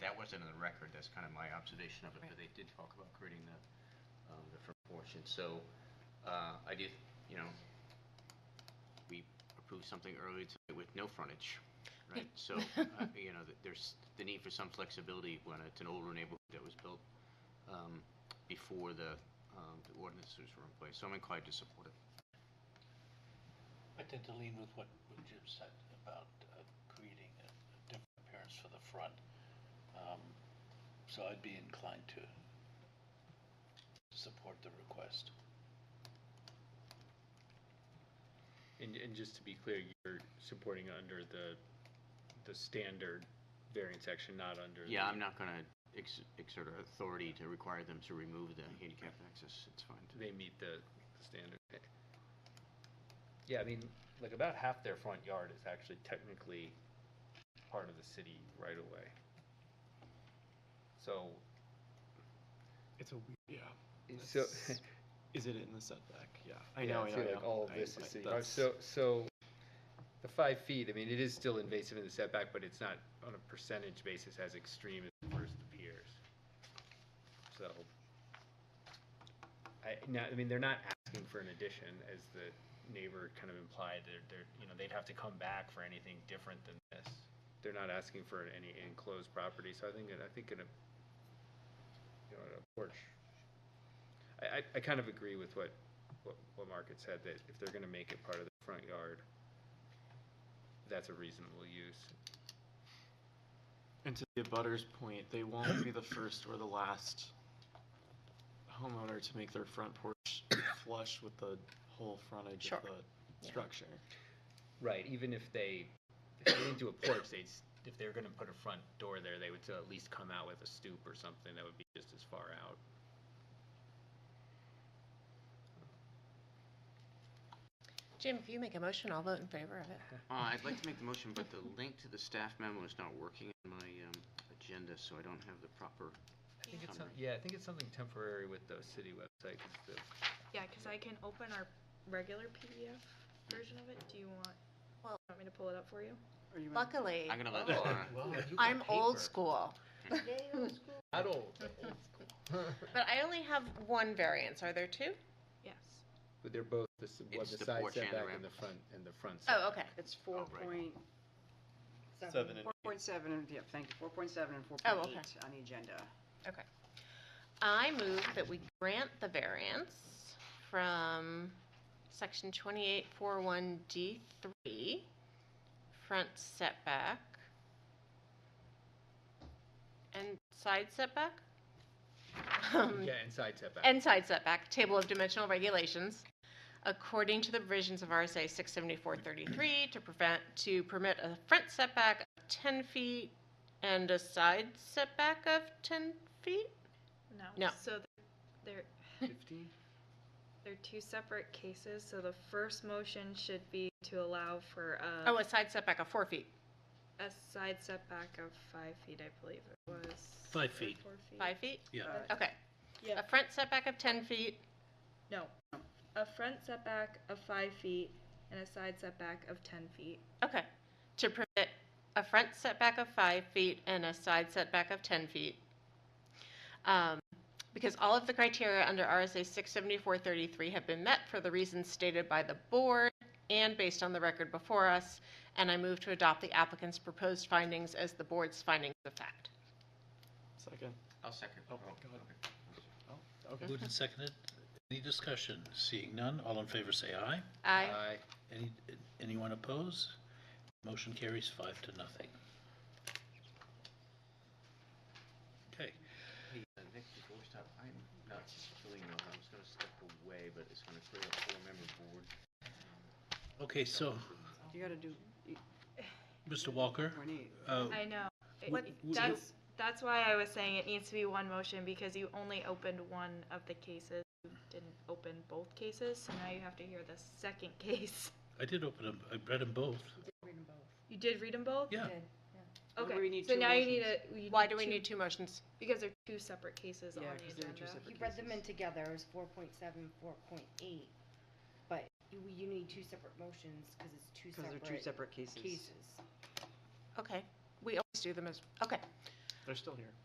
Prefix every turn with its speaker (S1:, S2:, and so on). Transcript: S1: wasn't in the record, that's kind of my observation of it, but they did talk about creating the, um, the front porch, and so, uh, I did, you know, we approved something earlier today with no frontage, right? So, uh, you know, th- there's the need for some flexibility when it's an older neighborhood that was built, um, before the, um, the ordinances were in place, so I'm inclined to support it.
S2: I tend to lean with what, what Jim said about uh, creating a a different appearance for the front. Um, So I'd be inclined to support the request.
S3: And, and just to be clear, you're supporting under the, the standard variance action, not under.
S1: Yeah,
S3: the-
S1: I'm not gonna ex- exert authority to require them to remove the handicap access, it's fine.
S3: They meet the, the standard. Yeah, I mean, like about half their front yard is actually technically part of the city right away. So,
S4: It's a weird, yeah.
S3: so.
S4: That's- Is it in the setback? Yeah. I
S3: Yeah,
S4: know, I
S3: I
S4: know.
S3: feel
S4: I
S3: like
S4: know.
S3: all of
S4: I-
S3: this
S4: I-
S3: is city.
S4: that's-
S3: So, so the five feet, I mean, it is still invasive in the setback, but it's not on a percentage basis as extreme as it first appears. So, I, now, I mean, they're not asking for an addition, as the neighbor kind of implied, they're, they're, you know, they'd have to come back for anything different than this. They're not asking for any enclosed property, so I think, I think in a, you know, in a porch. I, I, I kind of agree with what what, what Mark had said, that if they're gonna make it part of the front yard, that's a reasonable use.
S4: And to the abutter's point, they won't be the first or the last homeowner to make their front porch flush with the whole frontage
S5: Sure.
S4: of the structure.
S3: Right, even if they, if they didn't do a porch, they'd, s- if they were gonna put a front door there, they would still at least come out with a stoop or something that would be just as far out.
S5: Jim, if you make a motion, I'll vote in favor of it.
S1: Uh, I'd like to make the motion, but the link to the staff memo is not working on my um, agenda, so I don't have the proper
S3: I think it's,
S1: some-
S3: yeah, I think it's something temporary with the city website, 'cause the
S6: Yeah, because I can open our regular PDF version of it. Do you want,
S5: Well-
S6: want me to pull it up for you?
S5: Luckily,
S1: I'm gonna let Laura.
S5: I'm old school,
S3: Not old, but old.
S5: but I only have one variance. Are there two?
S6: Yes.
S3: But they're both, the s- what,
S1: It's
S3: the
S1: the
S3: side
S1: porch and the
S3: setback
S1: ramp.
S3: and the front, and the front setback.
S5: Oh, okay.
S7: It's four
S1: right.
S7: point,
S4: Seven and
S7: four point seven, and, yeah, thank you, four point seven and four
S5: Oh,
S7: point
S5: okay.
S7: eight on the agenda.
S5: I move that we grant the variance from section 2841D3, front setback, and side setback? Um,
S3: Yeah, and side setback.
S5: and side setback, table of dimensional regulations, according to the provisions of RSA 67433, to prevent, to permit a front setback of 10 feet and a side setback of 10 feet?
S6: No.
S5: No.
S6: So they're- they're,
S3: Fifteen?
S6: they're two separate cases, so the first motion should be to allow for
S5: Oh,
S6: a,
S5: a side setback of four feet,
S6: a side setback of five feet, I believe it was.
S2: Five
S6: or
S2: feet.
S6: Four feet.
S5: five feet?
S2: Yeah.
S7: Uh,
S5: Okay.
S6: Yeah.
S5: A front setback of 10 feet,
S6: No, a front setback of five feet and a side setback of ten feet.
S5: okay, to permit a front setback of five feet and a side setback of 10 feet. Um, Because all of the criteria under RSA 67433 have been met for the reasons stated by the board and based on the record before us, and I move to adopt the applicant's proposed findings as the board's findings of fact.
S4: Second.
S1: I'll second.
S4: Oh, my God. Oh, okay.
S2: Moved and seconded. Any discussion? Seeing none, all in favor say aye.
S5: Aye.
S3: Aye.
S2: Any, anyone oppose? Motion carries five to nothing. Okay,
S1: Hey, uh, Nick, before we stop, I'm not feeling well, I was gonna step away, but it's gonna create a four-member board.
S2: okay, so,
S7: You gotta do
S2: Mr. Walker,
S7: point eight.
S2: uh,
S6: I know. It-
S2: What- w-
S6: That's, that's why I was saying it needs to be one motion, because you only opened one of the cases. You didn't open both cases, so now you have to hear the second case.
S2: I did open them, I read them both.
S6: You did read them both?
S2: Yeah,
S7: Why do
S6: Okay,
S7: we need
S6: so
S7: two
S6: now you need
S7: motions?
S6: a. you
S5: Why do we
S6: two-
S5: need two motions?
S6: Because they're two separate cases on
S7: Yeah,
S6: the
S7: 'cause they're two
S6: agenda.
S7: separate
S8: You read them in
S7: cases.
S8: together, it was four point seven, four point eight, but you, you need two separate motions, cause it's two
S7: Cause they're two
S8: separate
S7: separate cases.
S8: cases.
S5: Okay, we always do them as, okay.
S4: They're still here.